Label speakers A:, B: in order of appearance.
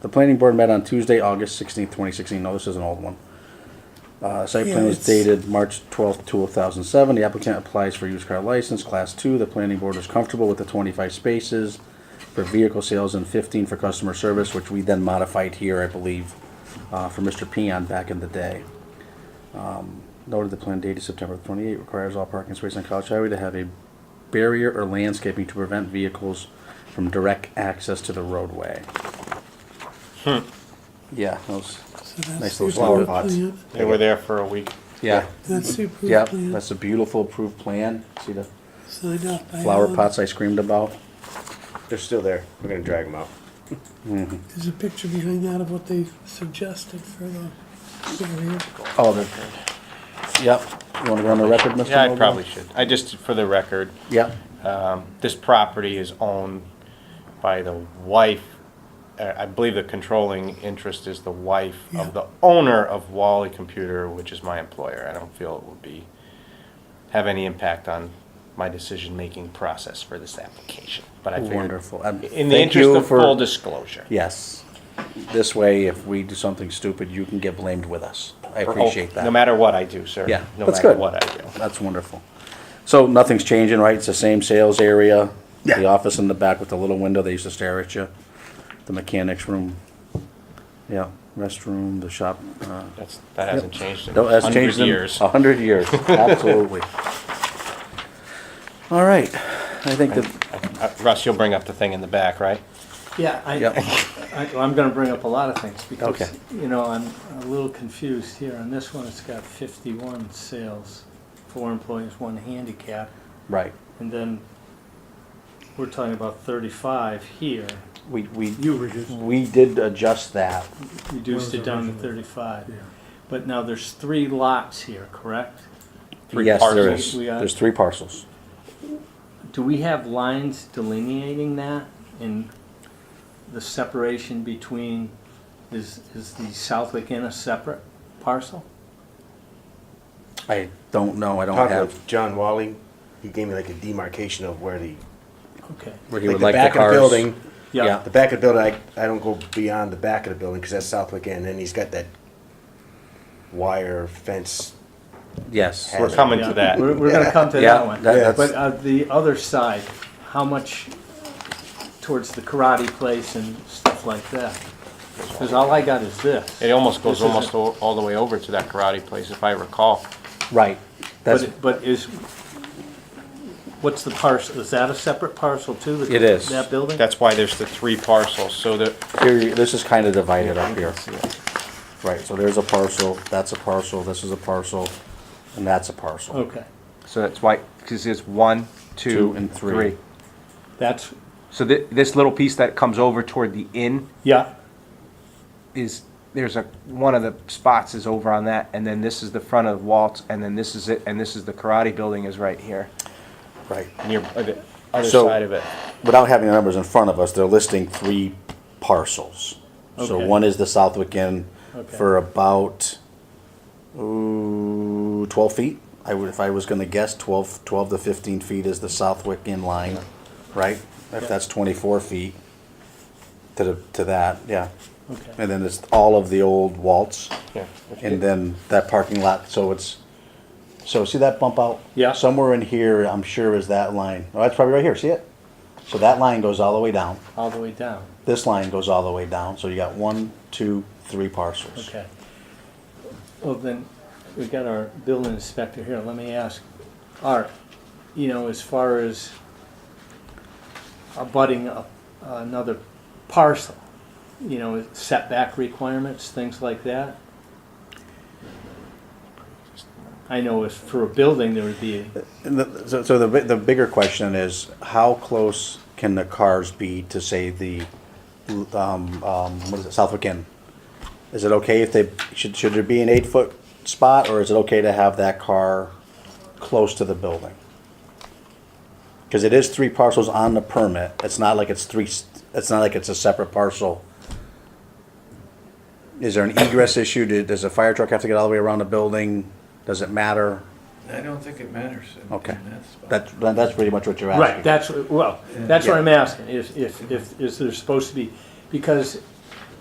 A: The planning board met on Tuesday, August sixteenth, twenty sixteen. No, this is an old one. Uh, site plan
B: Yeah,
A: was
B: it's-
A: dated March twelfth, two thousand seven. The applicant applies for used car license, class two. The planning board is comfortable with the twenty-five spaces for vehicle sales and fifteen for customer service, which we then modified here, I believe, uh, for Mr. Peon back in the day. Um, Noted the plan dated September 28 requires all parking spaces on College Highway to have a barrier or landscaping to prevent vehicles from direct access to the roadway. Yeah, those, Nice little flower pots.
C: They were there for a week.
A: yeah,
D: Mm-hmm.
B: That's the approved
A: yeah,
B: plan,
A: that's a beautiful approved plan. See the
B: signed off by
A: flower
B: Alan.
A: pots I screamed about?
E: They're still there. We're gonna drag them out.
B: There's a picture behind that of what they suggested for the area.
A: Oh, they're, yep, you wanna go on the record, Mr. Mogul?
C: Yeah, I probably should. I just, for the record,
A: Yep,
C: this property is owned by the wife, uh, I believe the controlling interest is the wife
B: Yeah.
C: of the owner of Wally Computer, which is my employer. I don't feel it would be, have any impact on my decision-making process for this application, but I figured,
A: wonderful. Um,
C: in the
A: thank
C: interest
A: you
C: of
A: for-
C: full disclosure.
A: Yes, this way, if we do something stupid, you can get blamed with us. I
C: Or-
A: appreciate that.
C: oh, No matter what I do, sir.
A: Yeah,
C: No
A: that's
C: matter
A: good.
C: what I do.
A: That's wonderful. So nothing's changing, right? It's the same sales area? The office in the back with the little window, they used to stare at you. The mechanics room. Yeah, restroom, the shop. uh,
C: That's, that hasn't changed in
A: no, that's
C: hundred
A: changed in
C: years.
A: A hundred years, absolutely. All right, I think that,
C: Uh, Russ, you'll bring up the thing in the back, right?
D: Yeah, I,
A: Yep.
D: I, I'm gonna bring up a lot of things
A: Okay.
D: because, you know, I'm a little confused here. On this one, it's got fifty-one sales, four employees, one handicap,
A: right,
D: and then we're talking about thirty-five here.
A: we, we,
F: You reduced.
A: we did adjust that.
D: Reduced it down to thirty-five. But now there's three lots here, correct?
C: Three
A: Yes, there
C: parcels.
A: is.
D: We are-
A: There's three parcels.
D: Do we have lines delineating that and the separation between, is, is the Southwick Inn a separate parcel?
A: I don't know, I don't
E: Talking
A: have,
E: with John Wally, he gave me like a demarcation of where the
D: Okay.
A: where he
E: like
A: would
E: the
A: like the
E: back of
A: cars.
E: the building.
A: Yeah.
E: The back of the building, I, I don't go beyond the back of the building because that's Southwick Inn, and he's got that wire fence.
A: Yes.
C: We're coming to that.
D: We're, we're gonna come to
A: Yeah,
D: that one.
A: that- that's-
D: But uh, the other side, how much towards the karate place and stuff like that? Because all I got is this.
C: It almost goes
D: This isn't-
C: almost all, all the way over to that karate place, if I recall.
A: Right, that's,
D: But, but is, what's the parcel, is that a separate parcel too? that-
A: It is.
D: That building?
C: That's why there's the three parcels, so that,
A: Here, this is kind of divided up here. Right, so there's a parcel, that's a parcel, this is a parcel, and that's a parcel.
D: Okay,
C: so that's why, because it's one,
A: Two and three.
D: that's,
C: So thi- this little piece that comes over toward the inn
D: yeah,
C: is, there's a, one of the spots is over on that, and then this is the front of Waltz, and then this is it, and this is the karate building is right here.
A: Right.
C: Near, the other
A: So-
C: side of it.
A: Without having the numbers in front of us, they're listing three parcels. So
D: Okay.
A: one is the Southwick Inn
D: Okay.
A: for about, ooh, twelve feet. I would, if I was gonna guess, 12 12 to fifteen feet is the Southwick Inn line, right? If that's twenty-four feet to the, to that, yeah.
D: okay.
A: And then it's all of the old Waltz.
C: Yeah.
A: And then that parking lot, so it's, so see that bump out?
D: Yeah.
A: Somewhere in here, I'm sure is that line. Oh, that's probably right here, see it? So that line goes all the way down.
D: All the way down,
A: This line goes all the way down, so you got one, two, three parcels.
D: okay. Well, then, we got our building inspector here, let me ask, Art, you know, as far as abutting a- another parcel, you know, setback requirements, things like that? I know if for a building, there would be,
A: And the, so, so the, bi- the bigger question is, how close can the cars be to say the, um, um, what is it, Southwick Inn? Is it okay if they, should, should there be an eight-foot spot, or is it okay to have that car close to the building? Because it is three parcels on the permit, it's not like it's three, s- it's not like it's a separate parcel. Is there an egress issue, Do- does a fire truck have to get all the way around the building, does it matter?
G: I don't think it matters. in-
A: Okay.
G: in that spot.
A: That's, that's pretty much what you're asking.
D: right, that's, well, that's what I'm asking, if, if, if, is there supposed to be, because